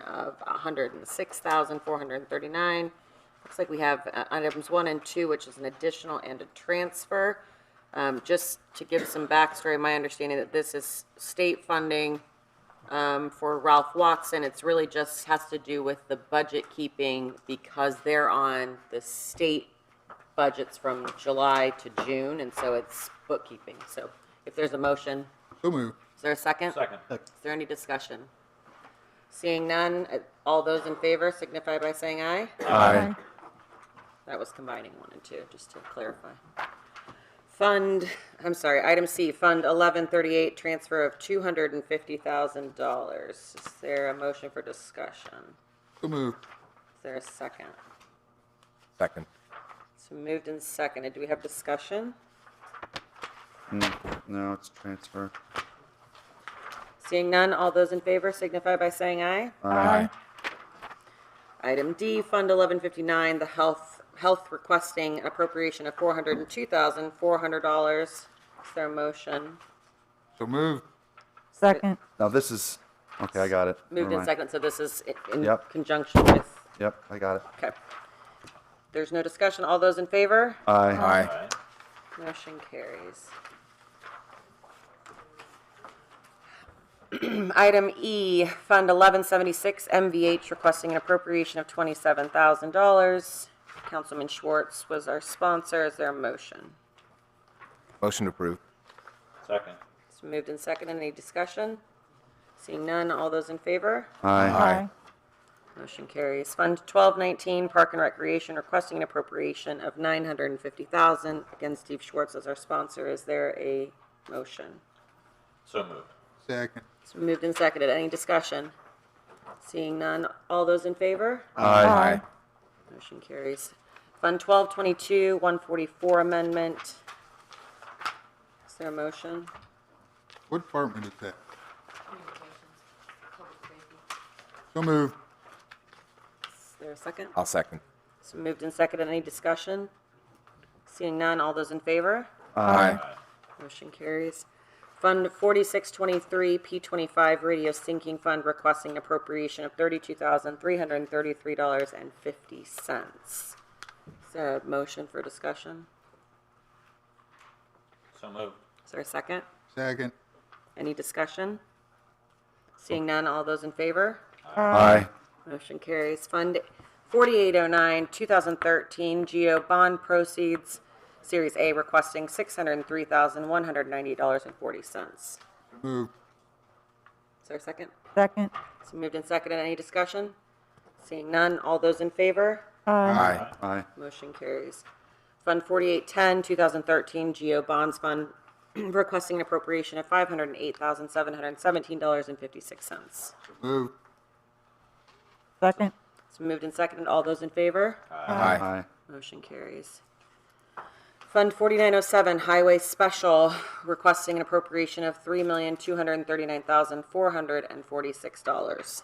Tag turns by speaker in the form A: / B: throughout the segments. A: of $106,439. Looks like we have uh, items one and two, which is an additional and a transfer. Um, Just to give some backstory, my understanding that this is state funding um, for Ralph Watson. It's really just has to do with the budget keeping because they're on the state budgets from July to June, and so it's bookkeeping. So if there's a motion,
B: So moved.
A: is there a second?
C: Second.
A: Is there any discussion? Seeing none, uh, all those in favor signify by saying aye.
B: Aye.
A: That was combining one and two, just to clarify. Fund, I'm sorry, item C, Fund 1138, transfer of $250,000. Is there a motion for discussion?
B: So moved.
A: Is there a second?
D: Second.
A: It's moved and seconded. Do we have discussion?
E: Hmm, No, it's transfer.
A: Seeing none, all those in favor signify by saying aye.
D: Aye.
A: Item D, Fund 1159, the health, health requesting an appropriation of $402,400. Is there a motion?
B: So moved.
F: Second.
E: Now this is, okay, I got it.
A: Moved
E: Never
A: and
E: mind.
A: seconded, so this is i- in
E: Yep.
A: conjunction with,
E: Yep, I got it.
A: okay. There's no discussion, all those in favor?
E: Aye.
D: Aye.
A: Motion carries. Item E, Fund 1176, MVH requesting an appropriation of $27,000. Councilman Schwartz was our sponsor, is there a motion?
D: Motion approved.
C: Second.
A: It's been moved and seconded. Any discussion? Seeing none, all those in favor?
E: Aye.
D: Aye.
A: Motion carries. Fund 1219, Park and Recreation, requesting an appropriation of 950000 Again, Steve Schwartz as our sponsor. Is there a motion?
C: So moved.
B: Second.
A: It's been moved and seconded. Any discussion? Seeing none, all those in favor?
D: Aye.
A: Motion carries. Fund 1222, 144 amendment. Is there a motion?
B: What department is that? So moved.
A: Is there a second?
D: I'll second.
A: It's been moved and seconded. Any discussion? Seeing none, all those in favor?
D: Aye.
A: Motion carries. Fund 4623, P25 Radio Sinking Fund requesting appropriation of $32,333.50. Is there a motion for discussion?
C: So moved.
A: Is there a second?
B: Second.
A: Any discussion? Seeing none, all those in favor?
E: Aye.
A: Motion carries. Fund 4809, 2013 GO Bond Proceeds, Series A requesting $603,198.40. Is
B: Moved.
A: there a second?
F: Second.
A: It's been moved and seconded. Any discussion? Seeing none, all those in favor?
D: Aye.
E: Aye.
A: Motion carries. Fund 4810, 2013 GO Bonds Fund, requesting an appropriation of $508,717.56. It's
B: Moved.
F: Second.
A: been moved and seconded. All those in favor?
D: Aye.
E: Aye.
A: Motion carries. Fund 4907, Highway Special, requesting an appropriation of $3,239,446.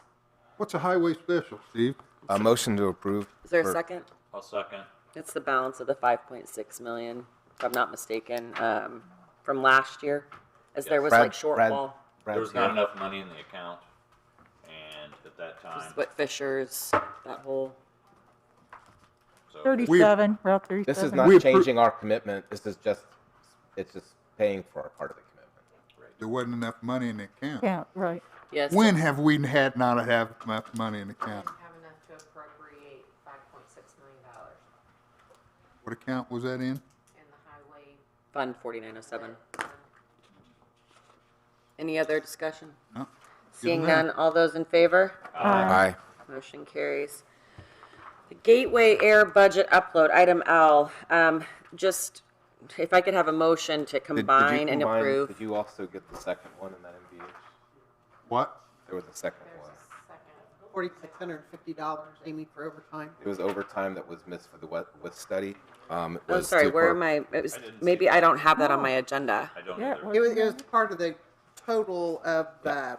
B: What's a highway special, Steve?
D: A motion to approve.
A: Is there a
D: for-
A: second?
C: I'll second.
A: It's the balance of the 5.6 million, if I'm not mistaken, um, from last year, as there was
D: Brad-
A: like shortfall.
D: Brad-
C: There was not
D: Brad's here.
C: enough money in the account, and at that time,
A: But Fisher's, that whole,
C: so,
F: 37, Route 37.
D: This is
B: We
D: not
B: appro-
D: changing our commitment. This is just, it's just paying for our part of the commitment.
B: There wasn't enough money in the account.
F: Count, right.
A: yes.
B: When have we had not have enough money in the account?
G: didn't have enough to appropriate five point six million dollars
B: What account was that in?
G: in the highway
A: Fund 4907. Any other discussion?
B: No.
A: Seeing
B: Good
A: none, all those in favor?
D: Aye.
A: Motion carries. The Gateway Air Budget Upload, item L, um, just, if I could have a motion to
D: Did- did you
A: combine and
D: combine-
A: approve.
D: Did you also get the second one in that MVH?
B: What?
D: There was a second one.
G: second.
H: forty-six hundred and fifty dollars, Amy, for overtime.
D: It was overtime that was missed for the wet, with study. Um, it
A: I'm
D: was
A: Oh, sorry,
D: to
A: where
D: appro-
A: am I, it was,
C: I didn't see
A: maybe I don't have that on my agenda.
C: I don't
F: Yeah,
C: either.
F: well-
H: It was, it was part of the total of, uh,
D: It was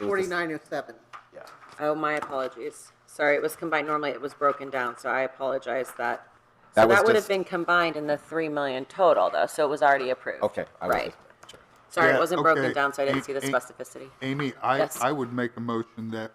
D: just-
H: forty-nine oh seven.
D: Yeah.
A: Oh, my apologies. Sorry, it was combined, normally it was broken down, so I apologize that. So
D: That was
A: that would have
D: just-
A: been combined in the three million total though, so it was already approved.
D: Okay. I was
A: Right.
D: just-
A: Sorry, it
B: Yeah,
A: wasn't broken
B: okay.
A: down, so I didn't
B: Ain't-
A: see the
B: ain't-
A: specificity.
B: Amy, I,
A: Yes.
B: I would make a motion that